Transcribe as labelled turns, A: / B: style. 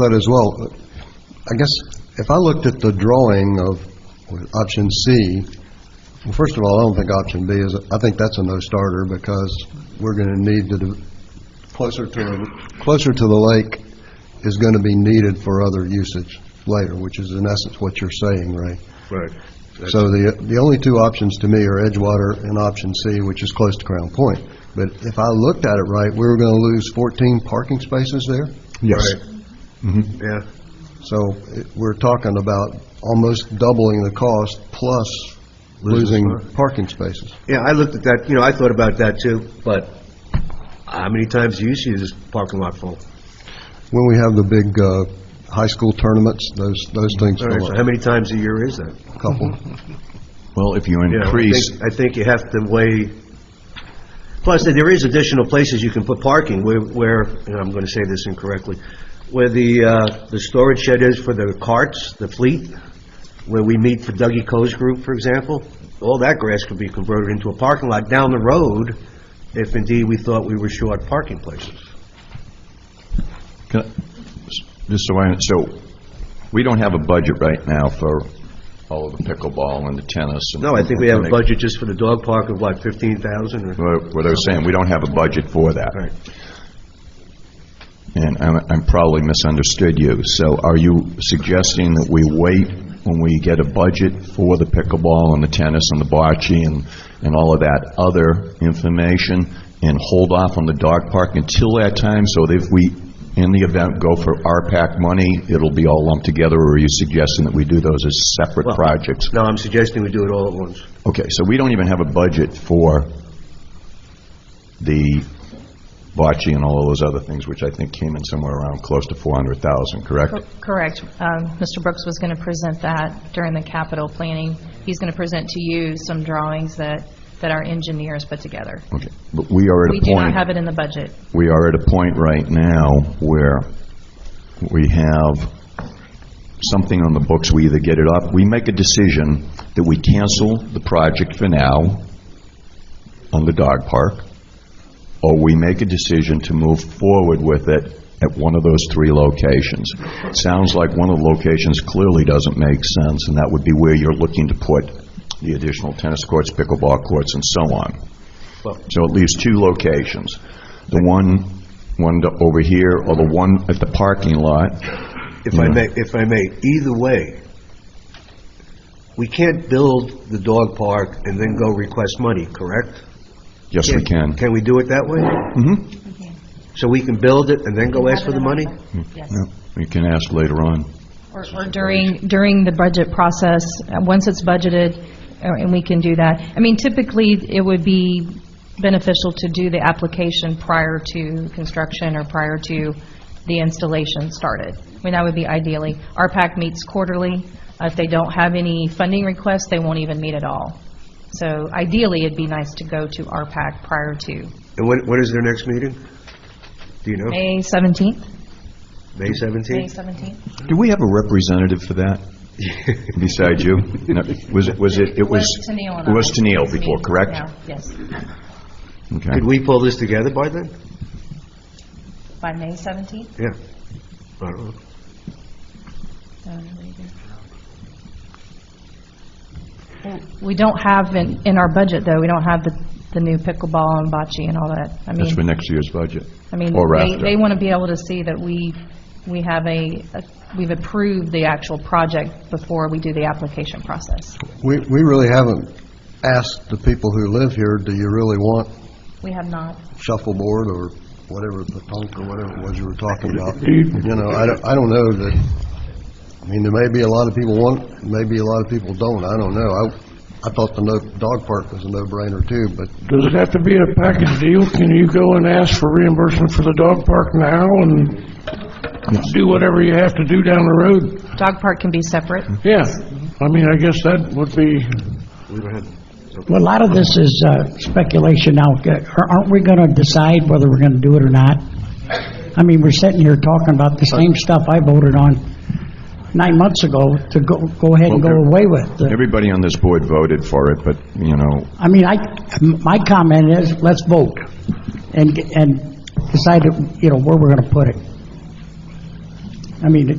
A: that as well. I guess if I looked at the drawing of option C, well, first of all, I don't think option B is, I think that's a no-starter because we're going to need to, do- closer to, closer to the lake is going to be needed for other usage later, which is in essence what you're saying, Ray.
B: Right.
A: So the, the only two options to me are Edgewater and option C, which is close to Crown Point. But if I looked at it right, we were going to lose 14 parking spaces there?
B: Yes. Mm-hmm. Yeah,
A: So it- we're talking about almost doubling the cost plus
B: Losing
A: losing parking spaces.
B: yeah, I looked at that, you know, I thought about that too, but how many times do you see this parking lot full?
A: When we have the big uh, high school tournaments, those, those things
B: All right,
A: fill
B: so
A: up
B: how many times a year is that?
A: a couple.
C: Well, if you
B: You know, I
C: increase,
B: think- I think you have to weigh, plus there is additional places you can put parking where- where, and I'm going to say this incorrectly, where the, uh, the storage shed is for the carts, the fleet, where we meet for Dougie Coe's group, for example, all that grass could be converted into a parking lot down the road if indeed we thought we were short parking places.
C: can I- just so I, so, we don't have a budget right now for all of the pickleball and the tennis. and-
B: No, I think we have a budget just for the dog park of, what, 15,000 or?
C: What what I was saying, we don't have a budget for that.
B: Right.
C: And I'm I'm probably misunderstood you. So are you suggesting that we wait when we get a budget for the pickleball and the tennis and the bocce and, and all of that other information and hold off on the dog park until that time? So that if we, in the event, go for RPAC money, it'll be all lumped together? Or are you suggesting that we do those as separate projects?
B: No, I'm suggesting we do it all at once.
C: Okay, so we don't even have a budget for the bocce and all of those other things, which I think came in somewhere around close to 400,000, correct?
D: Correct. Um, Mr. Brooks was going to present that during the capital planning. He's going to present to you some drawings that, that our engineers put together.
C: Okay, but we are at
D: We
C: a
D: do not
C: point,
D: have it in the budget.
C: we are at a point right now where we have something on the books, we either get it up, we make a decision that we cancel the project for now on the dog park, or we make a decision to move forward with it at one of those three locations. Sounds like one of the locations clearly doesn't make sense, and that would be where you're looking to put the additional tennis courts, pickleball courts, and so on. So at least two locations. The one, one to- over here, or the one at the parking lot.
B: If I may, if I may, either way, we can't build the dog park and then go request money, correct?
C: Yes, we can.
B: Can we do it that way?
C: Mhm.
B: So we can build it and then go ask for the money?
D: Yes.
C: Yeah, We can ask later on.
D: Or or during, during the budget process, uh, once it's budgeted, uh, and we can do that. I mean, typically, it would be beneficial to do the application prior to construction or prior to the installation started. I mean, that would be ideally. RPAC meets quarterly. Uh, If they don't have any funding requests, they won't even meet at all. So ideally, it'd be nice to go to RPAC prior to
B: And when, when is their next meeting? Do you know?
D: May 17th?
B: May
D: May
B: 17th?
D: 17th?
C: Do we have a representative for that besides you? No, Was it, was it, it was...
D: Was Tenille and
C: It was
D: I.
C: Tenille before,
D: Yeah,
C: correct?
D: Yes,
C: Okay.
B: Could we pull this together by then?
D: by May 17th.
B: Yeah. I don't know.
D: We don't have in, in our budget, though, we don't have the, the new pickleball and bocce and all that. I
C: That's for
D: mean,
C: next year's budget.
D: I mean,
C: Or
D: they,
C: after.
D: they want to be able to see that we, we have a, a- we've approved the actual project before we do the application process.
A: We, we really haven't asked the people who live here, do you really want
D: We have not.
A: shuffleboard or whatever, punk or whatever it was you were talking about? You know, I don't, I don't know that, I mean, there may be a lot of people want, maybe a lot of people don't, I don't know. I, I thought the no, dog park was a no-brainer too, but
E: Does it have to be a package deal? Can you go and ask for reimbursement for the dog park now and do whatever you have to do down the road?
D: Dog park can be separate.
E: Yeah, I mean, I guess that would be,
B: We don't have,
F: Well, a lot of this is uh, speculation now. Uh, Are- Aren't we going to decide whether we're going to do it or not? I mean, we're sitting here talking about the same stuff I voted on nine months ago to go go ahead and go away with. Uh,
C: Everybody on this board voted for it, but, you know,
F: I mean, I, my comment is, let's vote and, and decide, you know, where we're going to put it. I mean,